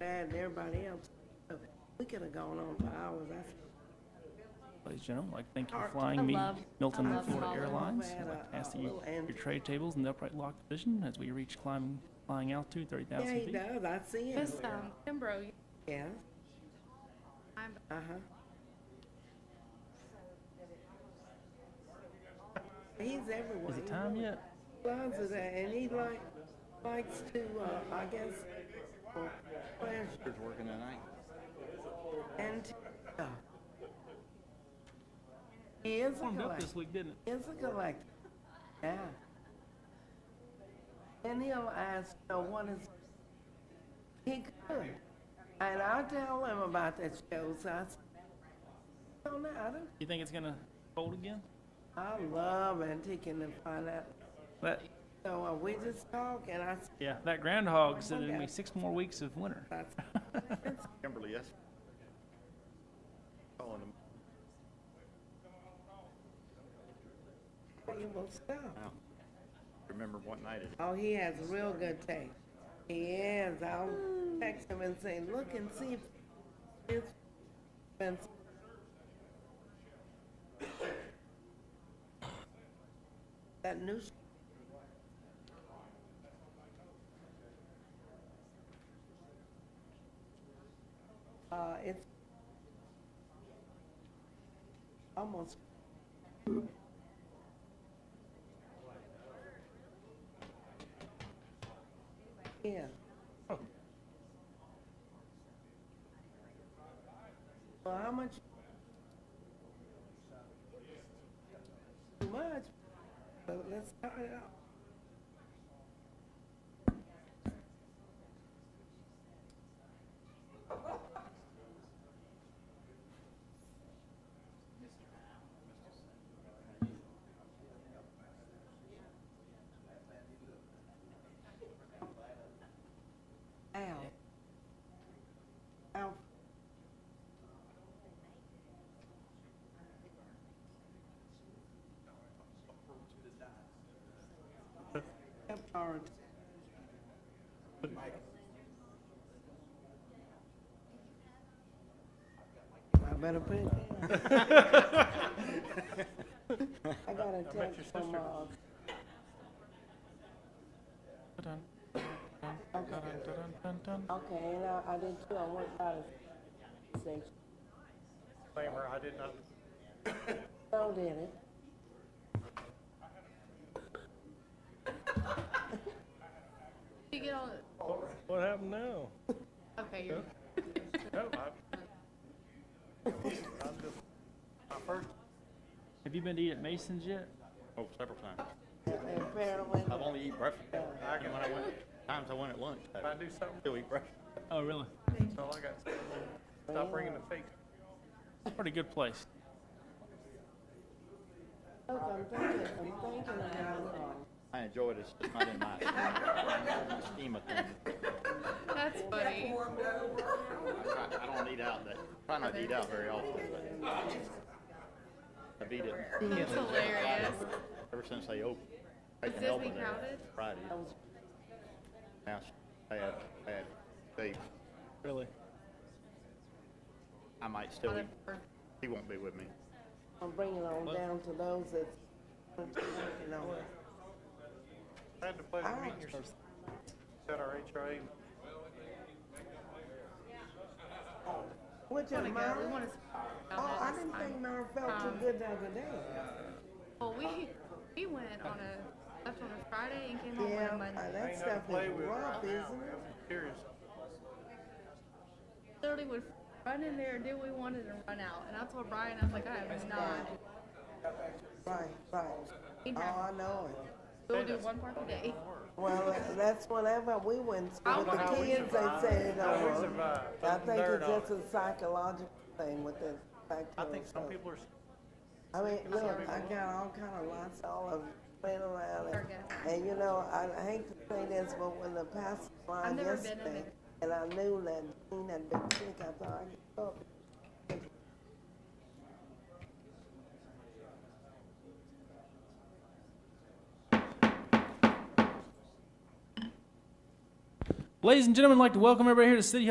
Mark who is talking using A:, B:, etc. A: and everybody else. So We could have gone on for hours. I feel
B: Ladies and gentlemen, I'd like, to thank you for
A: Art.
B: flying
C: I
B: me
C: love-
B: Milton
C: I love
B: Florida
C: Holland.
B: Airlines.
A: We had
B: I'd like
A: a-
B: to ask that
A: a
B: you,
A: little end-
B: your trade tables in the upright lock position as we reach climbing, flying altitude, 30,000
A: Yeah, he
B: feet.
A: does. I see him.
C: Miss, um, Kimbrough, you-
A: Yeah,
C: I'm,
A: uh-huh. He's everywhere.
B: Is it
A: He
B: time
A: really
B: yet?
A: loves it, and he like, likes to, uh, I guess, for pleasure
D: Here's working tonight.
A: and to- yeah. He is a
B: Warmed up
A: collector.
B: this week, didn't it?
A: It's a collector. Yeah. And he'll ask, you know, what is, he could. And I'll tell him about that show, so I said, I don't know, I don't,
B: You think it's gonna fold again?
A: I love antiquing and find out.
B: That,
A: So uh, we just talk and I said,
B: yeah, that groundhog said
A: look
B: there'd
A: at
B: be
A: it.
B: six more weeks of winter.
A: that's,
D: Kimberly, yes. Calling him.
A: he will stop.
D: out. Remember what night it,
A: Oh, he has real good taste. He is. I'll text him and say, look and see if it's been. That new, s- uh, it's almost Yeah. Well, how much? Too much, but let's cut it out. Al. Al. Yep, all right. I better put it down. I got a text from, uh,
B: Dun, dun, dun, dun, dun, dun, dun.
A: okay, and I, I did too, I went by the station.
E: Disclaimer, I did not
A: So did it.
C: you get all,
E: What happened now?
C: okay, you're,
E: No, I- My first,
B: Have you been to eat at Mason's yet?
D: oh, several times.
A: Apparently,
D: I've only eaten breakfast. And when I went, times I went at lunch,
E: I
D: I
E: do something,
D: still eat breakfast.
B: Oh, really?
E: that's all I got. Stop bringing the fake.
B: Pretty good place.
A: look, I'm thinking, I'm thinking about, um,
D: I enjoy it, it's just not in my scheme of things.
C: that's funny.
D: I I don't eat out, that, try not to eat out very often, but I've eaten
C: That's hilarious.
D: ever since they opened.
C: Is
D: Taken
C: Disney
D: Elba there
C: crowded?
D: Friday.
A: I was
D: Now, bad, bad, they,
B: Really?
D: I might still eat,
C: Or-
D: he won't be with me.
A: I'm bringing on down to those that, you know,
E: I had the pleasure of meeting your, at our HRA.
A: which is
C: Wanna go, we
A: mine.
C: wanna. s-
A: Oh, I
C: down there
A: didn't
C: this
A: think
C: time.
A: mine felt too
C: Um,
A: good the other day.
C: Well, we, we went on a, left on a Friday and came home on
A: Yeah,
C: a
A: uh,
C: Monday.
A: that
E: Ain't nothing
A: stuff
E: to play
A: is
E: with
A: rough,
E: right
A: isn't
E: now, man.
A: it?
E: I'm curious.
C: Literally would run in there, do what we wanted and run out. And I told Brian, I was like, I am not.
A: Right, right.
C: He
A: Oh,
C: drives.
A: I know it.
C: We'll do one park a day.
A: Well, that's whenever we went to-
C: I
A: with
C: don't know
A: the
C: how we
A: kids, they said,
E: How we
A: uh,
E: survived.
A: I
E: I'm
A: think
E: nerd
A: it's
E: on
A: just a psychological thing with the fact
E: I think some people are, s-
A: I mean, look, I got all kind of lots all of playing around, and,
C: Okay.
A: and you know, I I hate to say this, but when the pastor
C: I've
A: line
C: never been in
A: yesterday,
C: it.
A: and I knew that Dean had been sick, I thought I could go.
B: Ladies and gentlemen, I'd like to welcome everybody here to City Hall